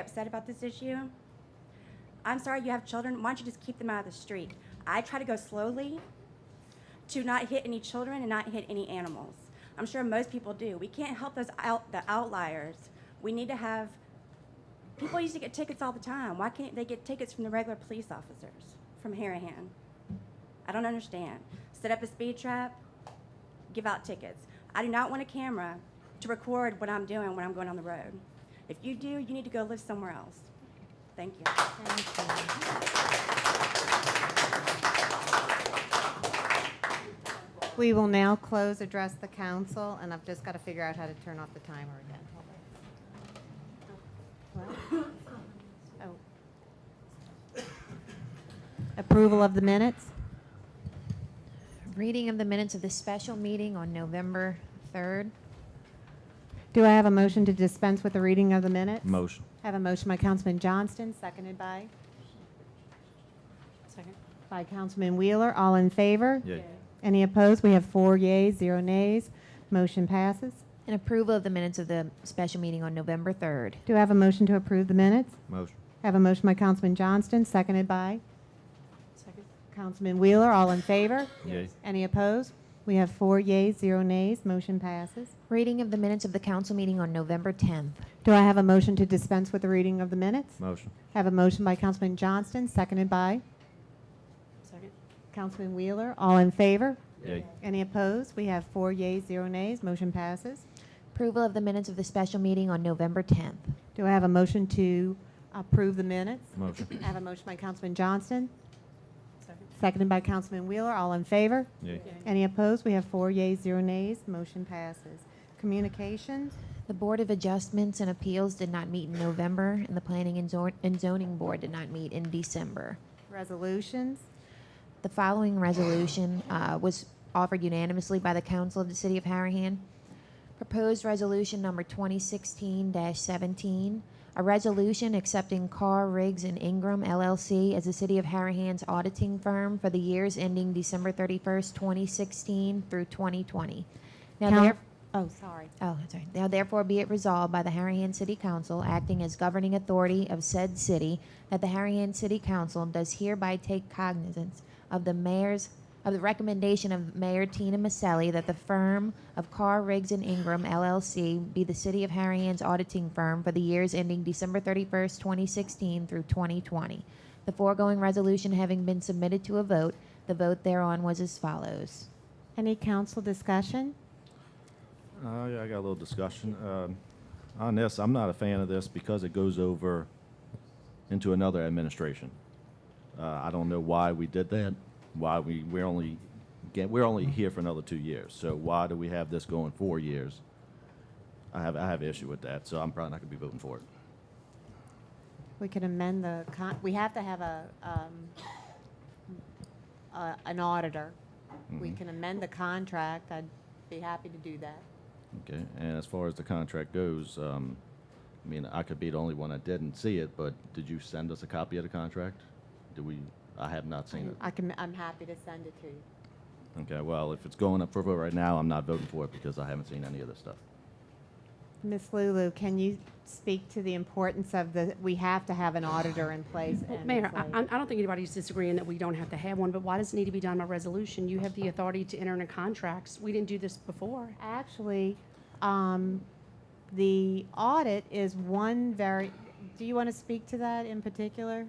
upset about this issue. I'm sorry you have children. Why don't you just keep them out of the street? I try to go slowly to not hit any children and not hit any animals. I'm sure most people do. We can't help those out the outliers. We need to have people used to get tickets all the time. Why can't they get tickets from the regular police officers from Harahan? I don't understand. Set up a speed trap, give out tickets. I do not want a camera to record what I'm doing when I'm going on the road. If you do, you need to go live somewhere else. Thank you. We will now close, address the council, and I've just got to figure out how to turn off the timer again. What? Oh. Approval of the minutes? Reading of the minutes of the special meeting on November 3rd. Do I have a motion to dispense with the reading of the minutes? Motion. I Have a motion by Councilman Johnston, seconded by? Second. By Councilman Wheeler, all in favor? Yay. Any opposed? We have four yeas, zero nays. Motion passes. And approval of the minutes of the special meeting on November 3rd. Do I have a motion to approve the minutes? Motion. I Have a motion by Councilman Johnston, seconded by? Second. Councilman Wheeler, all in favor? Yay. Any opposed? We have four yeas, zero nays. Motion passes. Reading of the minutes of the council meeting on November 10th. Do I have a motion to dispense with the reading of the minutes? Motion. I Have a motion by Councilman Johnston, seconded by Second. Councilman Wheeler. All in favor? Yay. Any opposed? We have four yeas, zero nays. Motion passes. Approval of the minutes of the special meeting on November 10th. Do I have a motion to approve the minutes? Motion. I have a motion by Councilman Johnston, Second. seconded by Councilman Wheeler. All in favor? Yay. Any opposed? We have four yeas, zero nays. Motion passes. Communications? The Board of Adjustments and Appeals did not meet in November, and the Planning and Zon- and Zoning Board did not meet in December. Resolutions? The following resolution uh, was offered unanimously by the Council of the City of Harahan. Proposed Resolution Number 2016-17, a resolution accepting Carr, Riggs, and Ingram LLC as the City of Harahan's auditing firm for the years ending December 31st, 2016 through 2020. Now, Coun- there- Oh, sorry. Oh, I'm sorry. Now therefore be it resolved by the Harahan City Council, acting as governing authority of said city, that the Harahan City Council does hereby take cognizance of the mayor's, of the recommendation of Mayor Tina Maselli that the firm of Carr, Riggs, and Ingram LLC be the city of Harahan's auditing firm for the years ending December 31st, 2016 through 2020. The foregoing resolution having been submitted to a vote, the vote thereon was as follows. Any council discussion? Uh, yeah, I got a little discussion. Um, on this, I'm not a fan of this because it goes over into another administration. Uh, I don't know why we did that, why we, we're only, get, we're only here for another two years. So why do we have this going four years? I have, I have an issue with that, so I'm probably not gonna be voting for it. We could amend the, con- we have to have a, um, a- an auditor. We Mhm. can amend the contract. I'd be happy to do that. Okay, and as far as the contract goes, um, I mean, I could be the only one that didn't see it, but did you send us a copy of the contract? Do we, I have not seen it. I can, I'm happy to send it to you. Okay, well, if it's going up for vote right now, I'm not voting for it because I haven't seen any of this stuff. Ms. Lulu, can you speak to the importance of the, we have to have an auditor in place? and Mayor, it's I, like- I I don't think anybody's disagreeing that we don't have to have one, but why does it need to be done by resolution? You have the authority to enter into contracts. We didn't do this before. Actually, um, the audit is one very, do you want to speak to that in particular?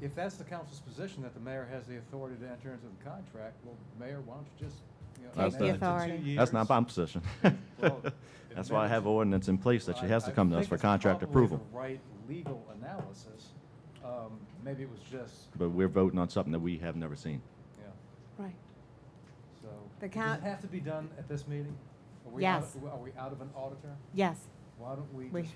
If that's the council's position, that the mayor has the authority to enter into the contract, well, mayor, why don't you just, you know. That's amend the- it to two Authority. That's years? not my position. Well, That's why I have ordinance in place that she I- has to come to us for contract I approval. think it's probably the right legal analysis. Um, Maybe it was just, But we're voting on something that we have never seen. yeah, Right. so. The Does coun- it have to be done at this meeting? Are we out- Yes. Are we out of an auditor? Yes. Why don't we We- just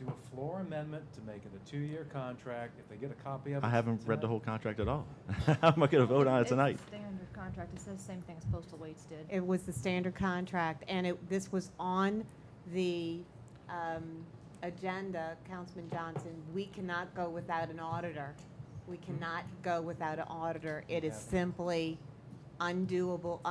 do a floor amendment to make it a two-year contract? If they get a copy of it. I haven't read the tonight- whole contract at all. How am I gonna vote on it tonight? It's a standard contract. It says the same thing as postal weights did. It was the standard contract, and it, this was on the um, agenda, Councilman Johnson. We cannot go without an auditor. We cannot go without an auditor. It is Yeah. simply undoable,